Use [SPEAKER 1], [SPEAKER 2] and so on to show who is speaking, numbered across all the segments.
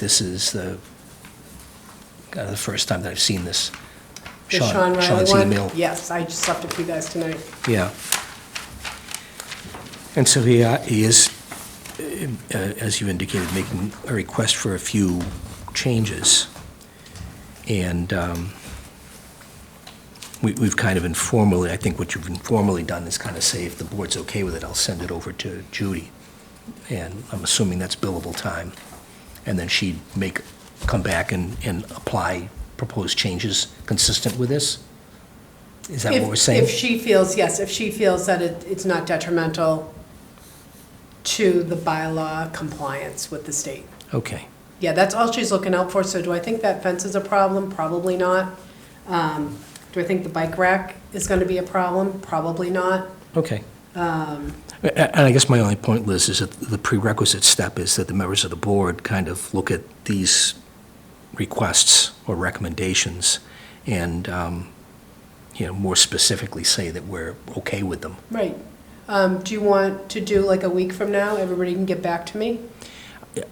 [SPEAKER 1] This is the, kind of the first time that I've seen this.
[SPEAKER 2] The Sean
[SPEAKER 1] Sean's
[SPEAKER 2] Riley
[SPEAKER 1] email.
[SPEAKER 2] one? Yes, I just left it for you guys tonight.
[SPEAKER 1] Yeah. And so he, uh, he is, uh, as you indicated, making a request for a few changes. And um, we, we've kind of informally, I think what you've informally done is kind of say, if the board's okay with it, I'll send it over to Judy. And I'm assuming that's billable time. And then she'd make, come back and, and apply proposed changes consistent with this? Is that
[SPEAKER 2] If-
[SPEAKER 1] what we're saying?
[SPEAKER 2] If she feels, yes, if she feels that it, it's not detrimental to the bylaw compliance with the state.
[SPEAKER 1] Okay.
[SPEAKER 2] Yeah, that's all she's looking out for, so do I think that fence is a problem? Probably not. Um, Do I think the bike rack is gonna be a problem? Probably not.
[SPEAKER 1] Okay.
[SPEAKER 2] Um,
[SPEAKER 1] A- a- And I guess my only point, Liz, is that the prerequisite step is that the members of the board kind of look at these requests or recommendations and, um, you know, more specifically say that we're okay with them.
[SPEAKER 2] Right. Um, Do you want to do like a week from now, everybody can get back to me?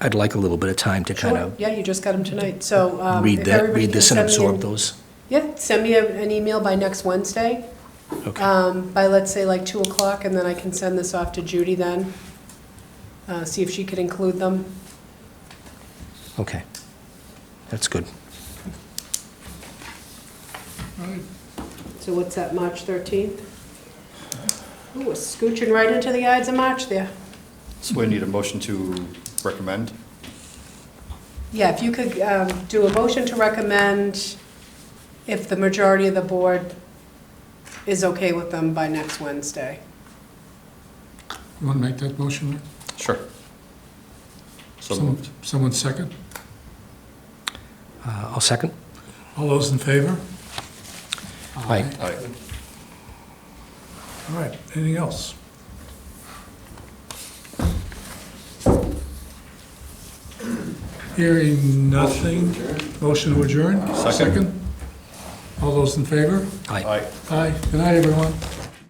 [SPEAKER 1] I'd like a little bit of time to kind
[SPEAKER 2] Sure,
[SPEAKER 1] of
[SPEAKER 2] yeah, you just got them tonight, so. um,
[SPEAKER 1] read
[SPEAKER 2] if
[SPEAKER 1] that,
[SPEAKER 2] everybody
[SPEAKER 1] read
[SPEAKER 2] can
[SPEAKER 1] this and
[SPEAKER 2] send me an-
[SPEAKER 1] absorb those.
[SPEAKER 2] Yeah, send me a- an email by next Wednesday,
[SPEAKER 1] Okay,
[SPEAKER 2] um, by let's say like 2 o'clock, and then I can send this off to Judy then, uh, see if she could include them.
[SPEAKER 1] okay. That's good.
[SPEAKER 2] So what's that, March 13th? Ooh, we're scooching right into the Ides of March there.
[SPEAKER 3] So we need a motion to recommend.
[SPEAKER 2] Yeah, if you could um, do a motion to recommend if the majority of the board is okay with them by next Wednesday.
[SPEAKER 4] You want to make that motion? Rick?
[SPEAKER 3] Sure. So
[SPEAKER 4] Some-
[SPEAKER 3] moved.
[SPEAKER 4] Someone second?
[SPEAKER 1] Uh, I'll second.
[SPEAKER 4] All those in favor?
[SPEAKER 1] Aye.
[SPEAKER 3] Aye.
[SPEAKER 4] All right, anything else? Hearing nothing, motion to adjourn?
[SPEAKER 3] Second.
[SPEAKER 4] All those in favor?
[SPEAKER 1] Aye.
[SPEAKER 3] Aye.
[SPEAKER 4] Aye, good night, everyone.